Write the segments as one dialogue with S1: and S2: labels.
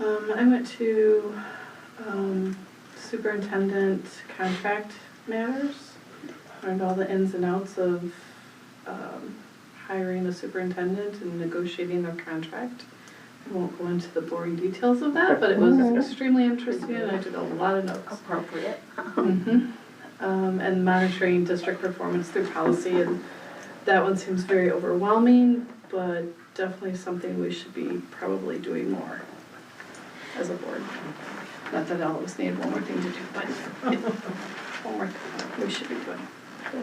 S1: Um, I went to, um, superintendent contract matters. Learned all the ins and outs of, um, hiring the superintendent and negotiating their contract. I won't go into the boring details of that, but it was
S2: Mhm.
S1: extremely interesting and I did a lot of notes.
S3: Appropriate.
S1: Mhm. Um, and monitoring district performance through policy, and that one seems very overwhelming, but definitely something we should be probably doing more as a board. Not that I always need one more thing to do, but one more thing we should be doing.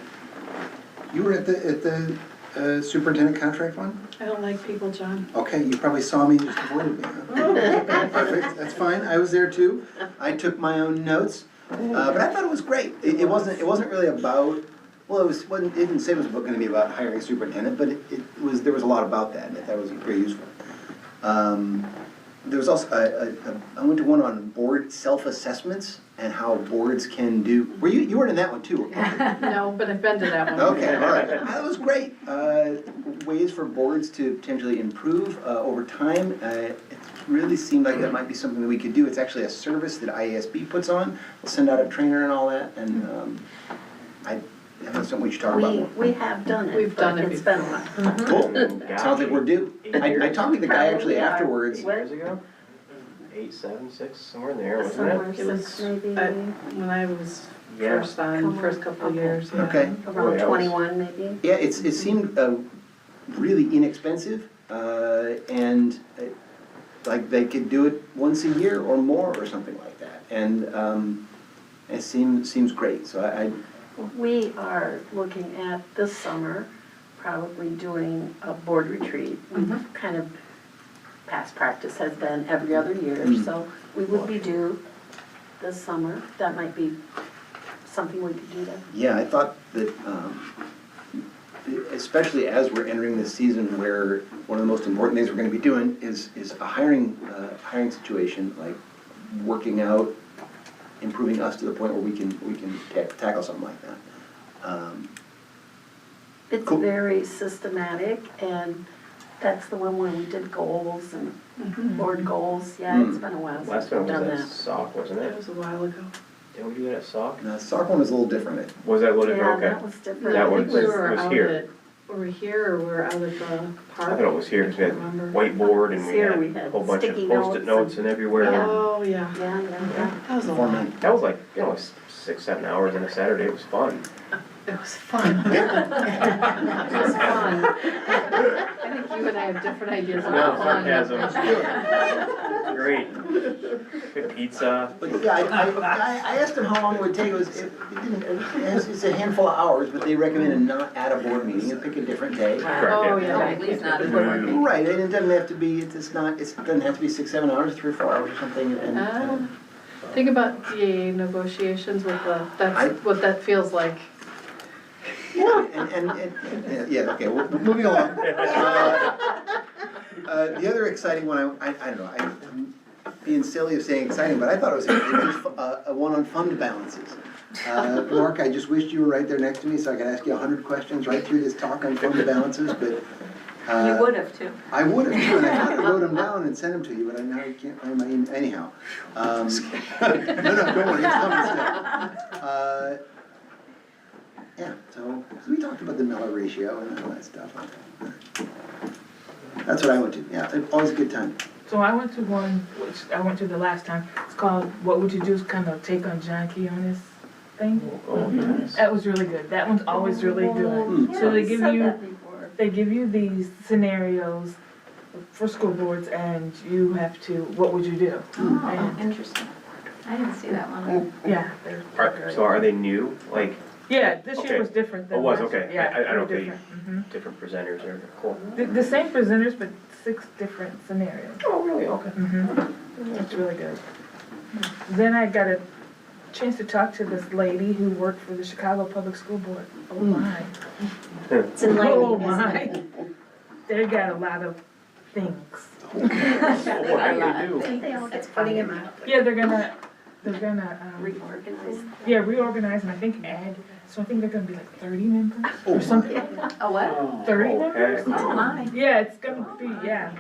S2: You were at the, at the uh, superintendent contract one?
S1: I don't like people, John.
S2: Okay, you probably saw me, you just avoided me. huh? Perfect, that's fine, I was there too. I took my own notes, uh, but I thought it was great. It, it wasn't, it wasn't really about, well, it was, wasn't- it didn't say it was gonna be about hiring a superintendent, but it, it was, there was a lot about that, and I thought it was very useful. Um, There was also, I- I- I went to one on board self-assessments and how boards can do, were you, you weren't in that one too, were you?
S1: No, but I've been to that one.
S2: Okay, all right. That was great. Uh, Ways for boards to potentially improve uh, over time. Uh, It really seemed like that might be something that we could do. It's actually a service that IASB puts on. They'll send out a trainer and all that, and um, I, that's something we should talk about
S3: We,
S2: more.
S3: we have done it.
S1: We've done
S3: but
S1: it
S3: It's been a while.
S4: Mm-hmm.
S2: Cool. Sounds like we're due. I I talked to the guy actually
S3: Probably are.
S2: afterwards.
S3: What?
S4: Years ago? Eight, seven, six, somewhere in there, wasn't it?
S3: Somewhere
S1: It was,
S3: since
S1: I-
S3: maybe around
S1: when I was
S4: Yeah.
S1: first on, first couple of years, yeah.
S2: Okay.
S4: Boy, I was-
S3: twenty-one maybe.
S2: Yeah, it's, it seemed uh, really inexpensive, uh, and uh, like they could do it once a year or more or something like that. And um, it seems, seems great, so I, I-
S3: We are looking at this summer, probably doing a board retreat. We've
S1: Mm-hmm.
S3: Kind of, past practice has been every other year,
S2: Mm.
S3: so we would be due this summer. That might be something we could do then.
S2: yeah, I thought that, um, especially as we're entering this season where one of the most important things we're gonna be doing is, is a hiring, uh, hiring situation, like working out, improving us to the point where we can, we can ta- tackle something like that. Um,
S3: It's
S2: Cool.
S3: very systematic, and that's the one where we did goals and
S1: Mhm.
S3: board goals. Yeah, it's
S2: Mm.
S3: been a while since
S4: Last
S3: we've
S4: one was
S3: done
S4: at
S3: that.
S4: Sock, wasn't
S1: It
S4: it?
S1: was a while ago.
S4: Did we do that at Sock?
S2: Now, soccer one is a little different. It-
S4: Was that what it,
S3: Yeah,
S4: okay.
S3: that was different.
S4: That
S1: I
S4: one
S1: think
S4: was-
S1: we were
S4: was
S1: out
S4: here.
S1: at- We were here or we were out at the
S4: I
S1: park.
S4: thought it was here, 'cause we had
S1: I remember.
S4: whiteboard and we
S3: Here we
S4: had a
S3: had
S4: whole bunch of
S3: sticky notes
S4: post-it notes
S3: and-
S4: and everywhere.
S3: Yeah.
S1: Oh, yeah.
S3: Yeah, yeah, yeah.
S1: That was a
S2: Four
S1: lot.
S2: men.
S4: That was like, you know, s- six, seven hours on a Saturday, it was fun.
S1: It was fun. It was fun. I think you and I have different ideas on Oh,
S4: No,
S1: fun.
S4: sarcasm. Great. Good pizza.
S2: But yeah, I, I, I- I asked him how long it would take, it was, it it didn't, it's, it's a handful of hours, but they recommended not at a board meeting, and pick a different day.
S1: Oh,
S4: Correct,
S1: yeah.
S5: At least not a board meeting.
S2: Right, and it doesn't have to be, it's it's not, it's- it doesn't have to be six, seven hours, three or four hours or something, and,
S1: Ah.
S2: and
S1: Think about DA negotiations with the,
S2: I-
S1: that's what that feels like.
S2: And, and, and- and, yeah, okay, well, moving along. Uh, uh, The other exciting one, I, I I don't know, I'm being silly of saying exciting, but I thought it was, it was fu- uh, a one on fund balances. Uh, Mark, I just wished you were right there next to me so I could ask you a hundred questions right through this talk on fund balances, but. uh,
S5: You would have too.
S2: I would have, too, and I thought I wrote them down and sent them to you, but I now I can't find my email, anyhow. Um, No, no, don't worry, it's coming still. Uh, Yeah, so, so we talked about the Miller ratio and all that stuff. That's what I went to, yeah, always a good time.
S6: So I went to one, which I went to the last time, it's called What Would You Do's kind of take on John Keonis thing.
S4: Oh, nice.
S6: That was really good, that one's always really good.
S4: Hmm.
S6: So they give you- They give you these scenarios for school boards and you have to, what would you do?
S5: Oh, interesting. I didn't see that one.
S6: Yeah. they-
S4: Are- So are they new, like,
S6: Yeah, this
S4: Okay.
S6: year was different
S4: Oh,
S6: than
S4: was,
S6: last year.
S4: okay. I- I- I don't think-
S6: think.
S4: different presenters or, cool?
S6: Mm-hmm. The, the same presenters, but six different scenarios.
S4: Oh, really? Okay.
S6: Mhm. It's really good. Then I got a chance to talk to this lady who worked for the Chicago Public School Board. Oh my.
S3: It's enlightening,
S6: Oh
S3: isn't it?
S6: my. They got a lot of things.
S4: What are you do?
S5: They all get putting him out.
S6: Yeah, they're gonna, they're gonna, um,
S3: Reorganize.
S6: yeah, reorganize and I think add, so I think they're gonna be like thirty members or something,
S5: A what?
S6: thirty members?
S4: Okay.
S5: Oh, my.
S6: Yeah, it's gonna be, yeah.